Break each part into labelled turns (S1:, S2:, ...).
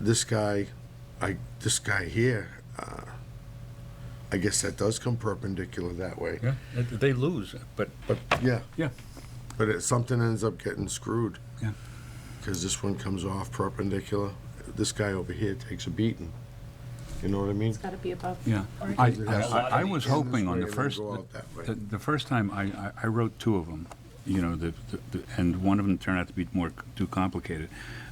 S1: this guy, I, this guy here, uh, I guess that does come perpendicular that way.
S2: Yeah, they- they lose, but
S1: But, yeah.
S2: Yeah.
S1: But it, something ends up getting screwed.
S2: Yeah.
S1: Because this one comes off perpendicular. This guy over here takes a beating. You know what I mean?
S3: It's gotta be above.
S2: Yeah.
S3: Or-
S2: I,
S1: Because it
S2: I,
S1: has to
S2: I- I
S1: be
S2: was
S1: in this
S2: hoping on
S1: way
S2: the
S1: and then
S2: first,
S1: go out that way.
S2: the, the first time, I, I- I wrote two of them, you know, the, the- the- and one of them turned out to be more, c- too complicated.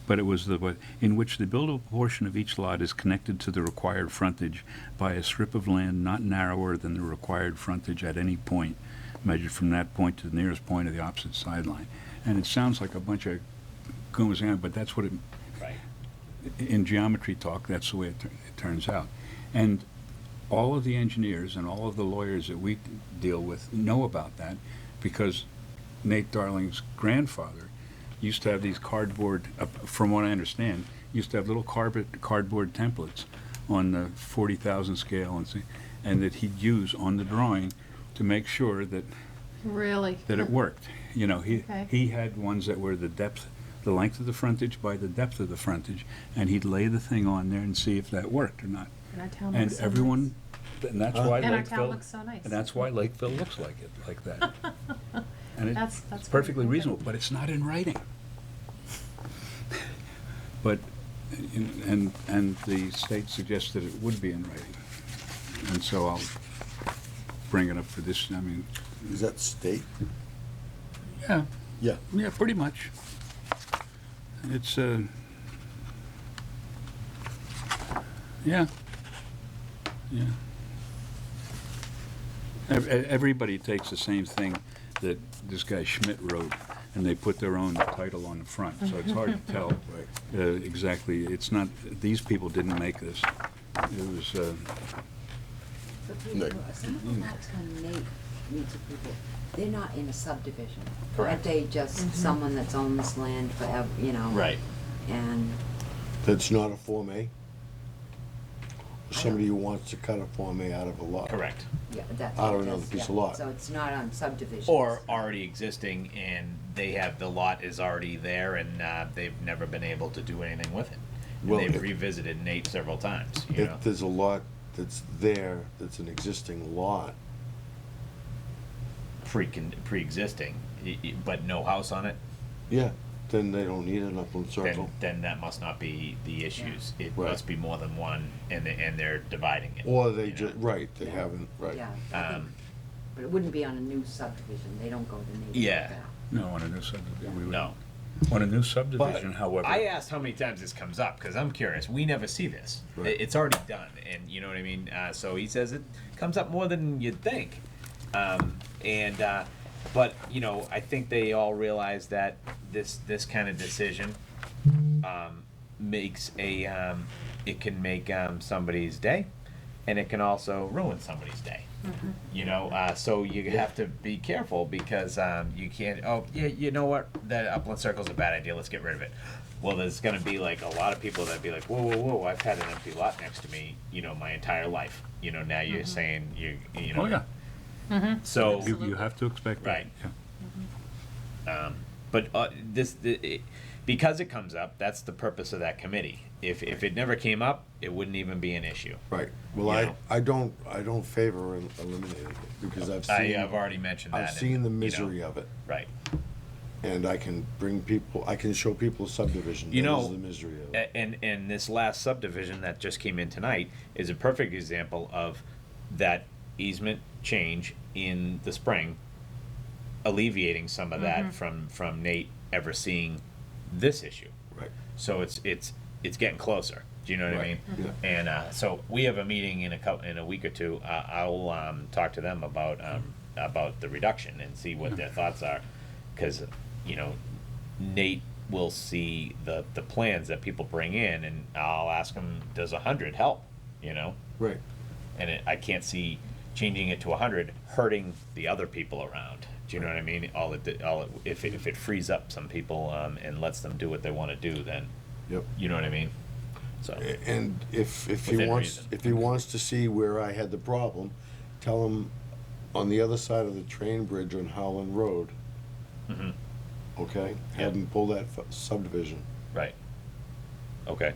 S2: But it was the, one in which the buildable portion of each lot is connected to the required frontage by a strip of land not narrower than the required frontage at any point, measured from that point to the nearest point of the opposite sideline. And it sounds like a bunch of goes on, but that's what it,
S4: Right.
S2: in geometry talk, that's the way it, tur- it turns out. And all of the engineers and all of the lawyers that we deal with know about that because Nate Darling's grandfather used to have these cardboard, uh, from what I understand, used to have little cardboard, cardboard templates on the 40,000 scale and, see- and that he'd use on the drawing to make sure that
S3: Really?
S2: that it worked. You know, he,
S3: Okay.
S2: he had ones that were the depth, the length of the frontage by the depth of the frontage, and he'd lay the thing on there and see if that worked or not.
S3: And our town
S2: And
S3: looks so
S2: everyone, and that's why
S3: nice. And our town
S2: Lakeville,
S3: looks so nice.
S2: and that's why Lakeville looks like it, like that. And it-
S3: That's- that's
S2: it's perfectly
S3: great. Okay.
S2: reasonable, but it's not in writing. But, in- and, and the state suggests that it would be in writing. And so I'll bring it up for this, I mean,
S1: Is that state?
S2: yeah,
S1: Yeah.
S2: yeah, pretty much. It's, uh, yeah, yeah. Ev- e- Everybody takes the same thing that this guy Schmidt wrote, and they put their own title on the front, so it's hard to tell uh, exactly. It's not, these people didn't make this. It was, uh,
S5: But people, some of the
S4: Mm-hmm.
S5: lots on Nate needs approval, they're not in a subdivision.
S4: Correct.
S5: Aren't they just someone that's owned this land forever, you know?
S4: Right.
S5: And,
S1: That's not a Form A?
S2: Oh.
S1: Somebody who wants to cut a Form A out of a lot.
S4: Correct.
S5: yeah, that's.
S1: Out of
S5: what it
S1: another
S5: is,
S1: piece of
S5: yeah.
S1: lot.
S5: So it's not on subdivisions.
S4: Or already existing and they have, the lot is already there and uh, they've never been able to do anything with it. And
S1: Well,
S4: they've
S1: if-
S4: revisited Nate several times, you know?
S1: If there's a lot that's there, that's an existing lot,
S4: pre pre-existing, y- y- but no house on it,
S1: yeah, then they don't need an upland circle.
S4: then then that must not be the issues. It
S1: Right.
S4: must be more than one, and they, and they're dividing it.
S1: Or they
S4: you know?
S1: just, right, they haven't, right.
S5: Yeah, I think-
S4: Um,
S5: but it wouldn't be on a new subdivision, they don't go to Nate. like
S4: Yeah.
S5: that.
S2: no, on a new subdivision. we would-
S4: No,
S2: On a new subdivision, however.
S4: I asked how many times this comes up because I'm curious. We never see this.
S1: Right.
S4: It- It's already done, and you know what I mean. Uh, so he says it comes up more than you'd think, um, and uh, but you know I think they all realize that this this kind of decision um, makes a um, it can make um, somebody's day, and it can also ruin somebody's day. You know, uh, so you have to be careful because um, you can't. Oh, yeah, you know what? That upland circle's a bad idea. Let's get rid of it. Well, there's going to be like a lot of people that be like, whoa, whoa, whoa! I've had an empty lot next to me, you know, my entire life. You know, now you're saying you, you know.
S2: Oh, yeah.
S4: So
S2: You, you have to expect that.
S4: Right.
S2: yeah.
S4: But uh, this, the, it, because it comes up, that's the purpose of that committee. If, if it never came up, it wouldn't even be an issue.
S1: Right, well, I,
S4: Yeah.
S1: I don't, I don't favor el- eliminating it, because I've
S4: I
S1: seen,
S4: have already mentioned that.
S1: I've seen the
S4: and, you know,
S1: misery of it.
S4: Right.
S1: And I can bring people, I can show people subdivision,
S4: You
S1: that is
S4: know, eh,
S1: the misery of it.
S4: A- And, and this last subdivision that just came in tonight is a perfect example of that easement change in the spring alleviating some of that from, from Nate ever seeing this issue.
S1: Right,
S4: So it's it's it's getting closer. Do you know what
S1: Right,
S4: I mean?
S1: yeah.
S4: And uh, so we have a meeting in a couple in a week or two. Uh, I'll um, talk to them about um, about the reduction and see what their thoughts are, because you know Nate will see the the plans that people bring in, and I'll ask him, does a hundred help? You know,
S1: right,
S4: and it, I can't see changing it to 100 hurting the other people around. Do you know what I mean? All it, did- all it, if it, if it frees up some people um, and lets them do what they want to do, then
S1: yep.
S4: you know what I mean. So
S1: A- And if, if he
S4: Within
S1: wants,
S4: reason.
S1: if he wants to see where I had the problem, tell him on the other side of the train bridge on Howland Road.
S4: Mm-hmm.
S1: Okay, have him pull that fu- subdivision,
S4: right, okay,